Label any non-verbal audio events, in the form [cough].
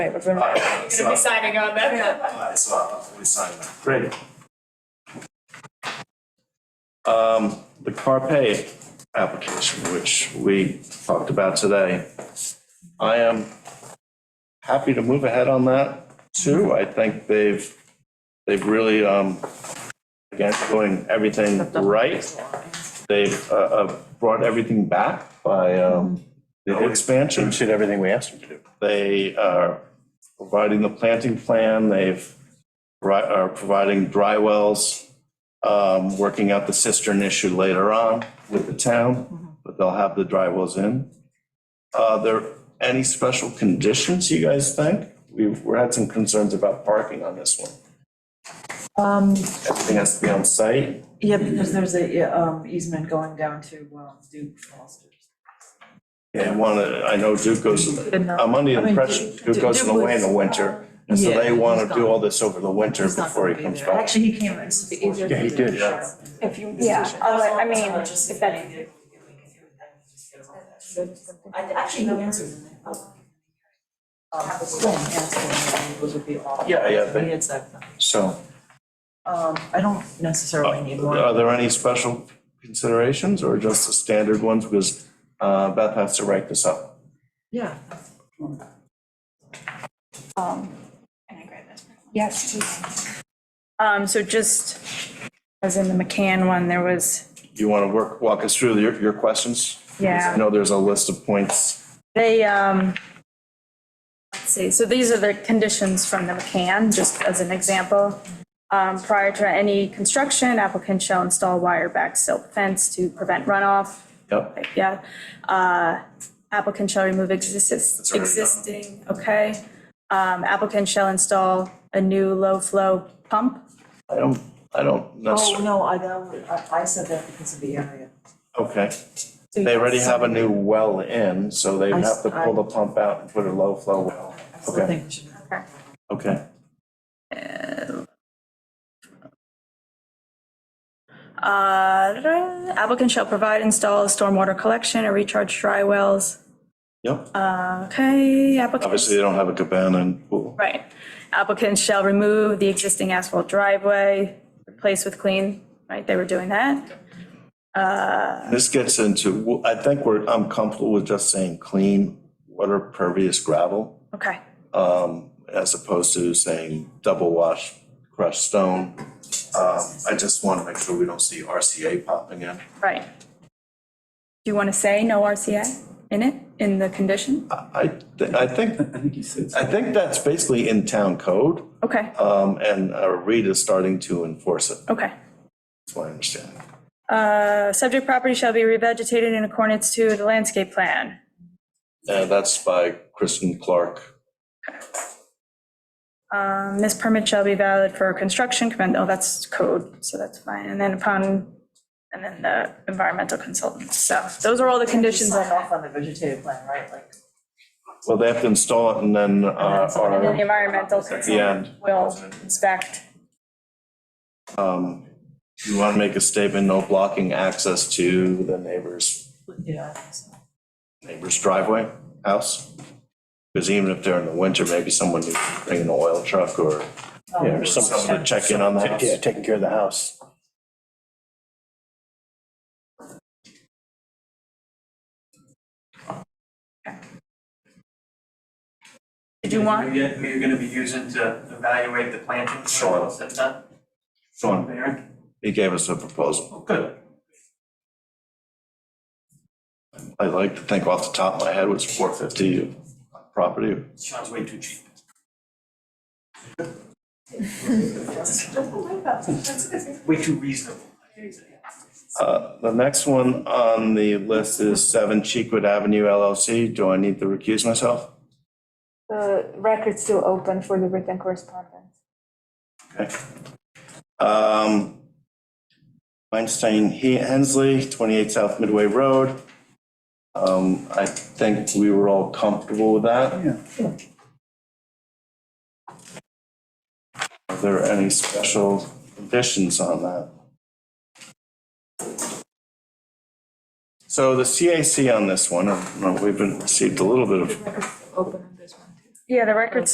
Right, we're gonna, Alright, we're [laughs] so- gonna be signing on that. Alright, so I'll, we sign that. Great. Um, the Carpe application, which we talked about today. I am happy to move ahead on that too. Mm-hmm. I think they've, they've really, um, again, doing everything right. They've, uh, uh, brought everything back by, um, the expansion. did Mm-hmm. everything we asked them to do. They are providing the planting plan, they've, ri- are providing dry wells, um, working out the cistern issue later on with the Mm-hmm. town, but they'll have the dry wells in. Are there any special conditions you guys think? We've, we had some concerns about parking on this one. Um, Everything has to be on site. yeah, because there's a, yeah, um, easement going down to, um, Duke Foster's. Yeah, one, uh, I know Duke goes, I'm under I the mean, impression Duke- Duke goes Duke away in was- uh, the winter. And so Yeah, they want he's to gone. do all this over the winter He's not before he gonna be comes there. back. Actually, he came and supported. Yeah, he did. Yeah. If you, yeah, oh, oh, I I mean, if that, I actually know answers in there. Um, Glenn asked him, would it be all? Yeah, yeah, they- He had said, So. um, I don't Oh, necessarily need more. uh, Are there any special considerations or just the standard ones? Because uh, Beth has to write this up. Yeah. yes, please. Um, so just, as in the McCann one, there was, Do you want to work, walk us through your, your questions? Because I Yeah. know there's a list of points. they, um, let's see, so these are the conditions from the McCann, just as an example. Um, prior to any construction, applicant shall install wire back silk fence to prevent runoff. Yep. Yeah, uh, applicant shall remove exis- already done. existing, okay. Um, Applicant shall install a new low-flow pump. I don't, I don't Oh, necessarily, no, I know, I, I said that because of the area. okay. Oh. So They you- already have a new well in, so they I s- have to pull the pump out and put a low flow well. I still okay. think we should. Okay. Okay. Uh, da-da. Applicant shall provide, install stormwater collection or recharge dry wells. Yep. Um, Uh, Okay, Obviously, applicant, they don't have a cabana and pool. right. Applicant shall remove the existing asphalt driveway, replace with clean, right, they were doing that. This gets into, I think we're, I'm comfortable with just saying clean, water pervious gravel. Okay, as opposed to saying double wash crushed stone. Um, I just want to make sure we don't see RCA popping in. right. Do you want to say no RCA in it, in the condition? I, thi- I think, I think he said. I think that's basically in town code, Okay, um, and uh, Reed is starting to enforce it, okay. that's my understanding. Uh, Subject property shall be revegetated in accordance to the landscape plan. And that's by Kristen Clark. Um, This permit shall be valid for construction, command, oh, that's code, so that's fine. And then upon, and then the environmental consultant. So those are all the conditions. Sign on off on the vegetative plan, right, like, Well, they have to install it and then, uh, And then the our, environmental at the consultant end. will inspect. Um, you want to make a statement, no blocking access to the neighbor's yeah, I think so. neighbor's driveway, house. Because even if they're in the winter, maybe someone needs to bring an oil truck or Um, Yeah, or some- someone to check in on the house. Yeah, taking care of the house. Did you want, We're gonna- We're gonna be using to evaluate the planting. Sure. That's done. Sean, Aaron? he gave us a proposal. Oh, good. I like to think off the top of my head was four fifty property. Sean's way too cheap. Way too reasonable. Uh, The next one on the list is seven Cheekwood Avenue LLC. Do I need to recuse myself? The record's still open for the written correspondence. Okay. Um, Weinstein He- Hensley, 28 South Midway Road. Um, I think we were all comfortable with that. Yeah. Are there any special conditions on that? So the CAC on this one, uh, we've been, received a little bit of Record's still open on this one. yeah, the record's